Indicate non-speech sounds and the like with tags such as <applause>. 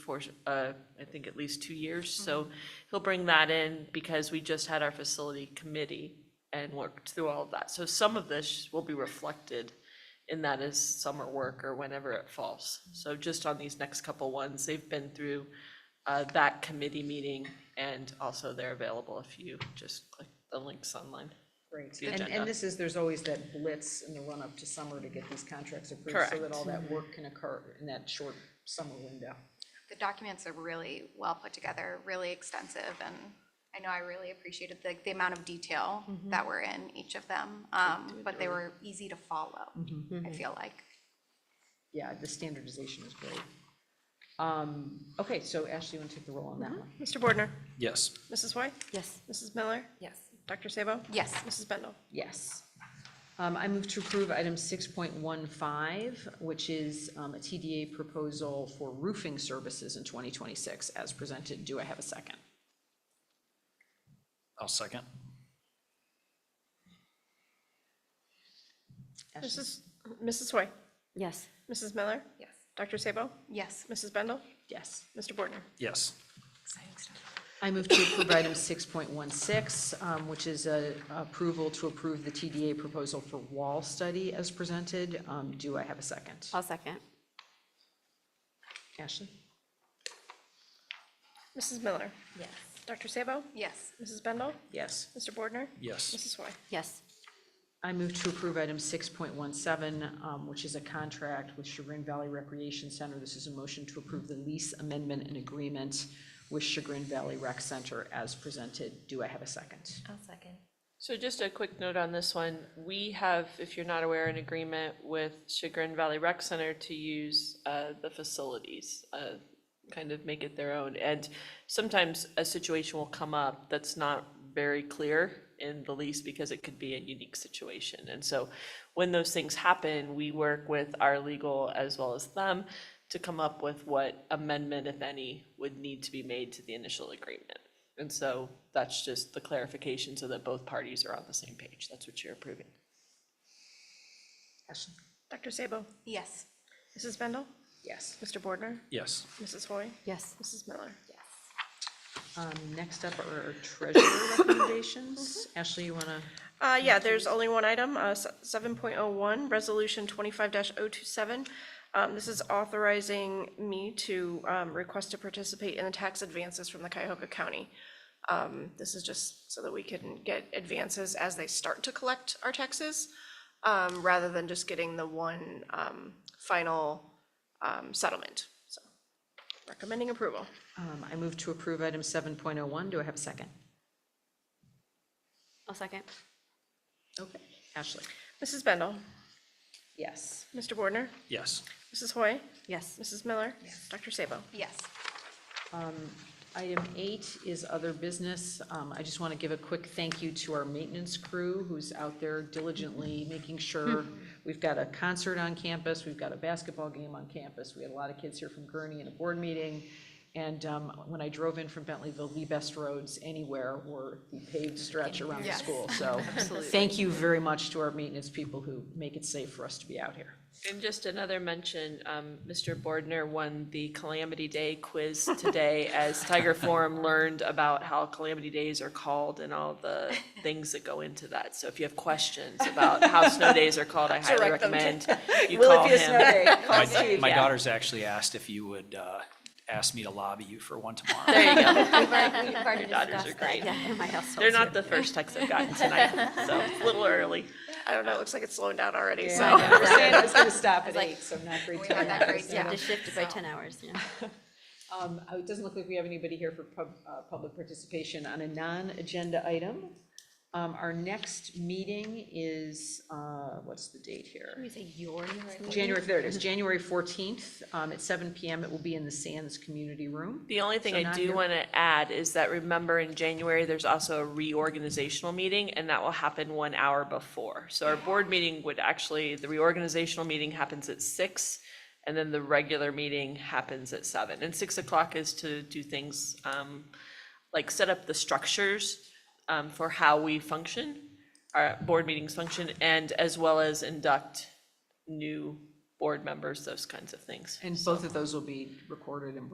for, uh, I think, at least two years. So he'll bring that in because we just had our facility committee and worked through all of that. So some of this will be reflected in that as summer work or whenever it falls. So just on these next couple ones, they've been through uh, that committee meeting, and also they're available if you just click the links online. Great, the and, agenda. and this is, there's always that blitz in the run-up to summer to get these contracts approved. So that Correct. all that work can occur in that short summer window. The documents are really well put together, really extensive, and I know I really appreciated the, the amount of detail that were in each of them. Um, but they were easy to follow, I feel like. Yeah, the standardization is great. Um, okay, so Ashley, you want to take the roll on Mm-hmm. that one? Mr. Bordner, Yes. Mrs. White? Yes. Mrs. Miller? Yes. Dr. Sabo? Yes, Mrs. Bendel? Yes. Um, I move to approve item six point one five, which is, um, a TDA proposal for roofing services in twenty twenty-six as presented. Do I have a second? I'll second. Ashley? Mrs. Mrs. White? Yes. Mrs. Miller? Yes. Dr. Sabo? yes, Mrs. Bendel? Yes. Mr. Bordner? Yes. exciting stuff. I move to approve item six point one six, um, which is a approval to approve the TDA proposal for wall study as presented. Um, Do I have a second? I'll second. Ashley? Mrs. Miller? Yes. Dr. Sabo? Yes, Mrs. Bendel? Yes. Mr. Bordner? Yes. Mrs. White? Yes. I move to approve item six point one seven, um, which is a contract with Chagrin Valley Recreation Center. This is a motion to approve the lease amendment and agreement with Chagrin Valley Rec Center as presented. Do I have a second? So just a quick note on this one, we have, if you're not aware, an agreement with Chagrin Valley Rec Center to use uh, the facilities, uh, kind of make it their own. And sometimes a situation will come up that's not very clear in the lease because it could be a unique situation. And so when those things happen, we work with our legal as well as them to come up with what amendment, if any, would need to be made to the initial agreement. And so that's just the clarification so that both parties are on the same page. That's what you're approving. Ashley? Dr. Sabo? yes, Mrs. Bendel? Yes. Mr. Bordner? Yes. Mrs. Hoy? Yes. Mrs. Miller? Um, Next up are treasurer recommendations. Ashley, you want to? Uh, yeah, there's only one item, uh, seven point oh one, resolution twenty-five 27 Um, this is authorizing me to, um, request to participate in the tax advances from the Cuyahoga County. Um, this is just so that we can get advances as they start to collect our taxes, um, rather than just getting the one, um, final, um, settlement. So, recommending approval. Um, I move to approve item seven point oh one. Do I have a second? I'll <laughs> second. Okay. Ashley? Mrs. Bendel, Yes. Mr. Bordner, Yes. Mrs. Hoy, Yes. Mrs. Miller, Dr. Sabo. yes, Item eight is other business. Um, I just want to give a quick thank you to our maintenance crew who's out there diligently making sure we've got a concert on campus, we've got a basketball game on campus. We had a lot of kids here from Gurney and a board meeting. And, um, when I drove in from Bentleyville, the best roads anywhere were the paved stretch around the Yes. school. So, thank you very much to our maintenance people who make it safe for us to be out here. And just another mention, um, Mr. Bordner won the Calamity Day quiz <laughs> today as Tiger Forum learned about how Calamity Days are called and all the things that go into that. So if you have questions about how snow days are <laughs> called, I highly Direct them to- recommend <laughs> you call him. My, my yeah. daughter's actually asked if you would uh, ask me to lobby you for one <laughs> tomorrow. There you go. We've already- we've already daughters are discussed that, great. Yeah, in my household. They're <laughs> not the first text I've gotten tonight, so it's a little early. I don't know, it looks like it's slowing down already, <laughs> so. I was gonna stop at eight, so not great we timing. had that great You have stuff. to shift it by 10 hours, yeah. Um, oh, it doesn't look like we have anybody here for pub, uh, public participation on a non-agenda item. Um, our next meeting is, uh, what's the date here? Can we say your next meeting? January, there it is, January fourteenth, um, at seven PM. It will be in the Sands Community Room. The only thing So I not do here. want to add is that remember in January, there's also a reorganizational meeting and that will happen one hour before. So our board meeting would actually, the reorganizational meeting happens at six and then the regular meeting happens at seven. And six o'clock is to do things um, like set up the structures um, for how we function, our board meetings function, and as well as induct new board members, those kinds of things. And both of those will be recorded and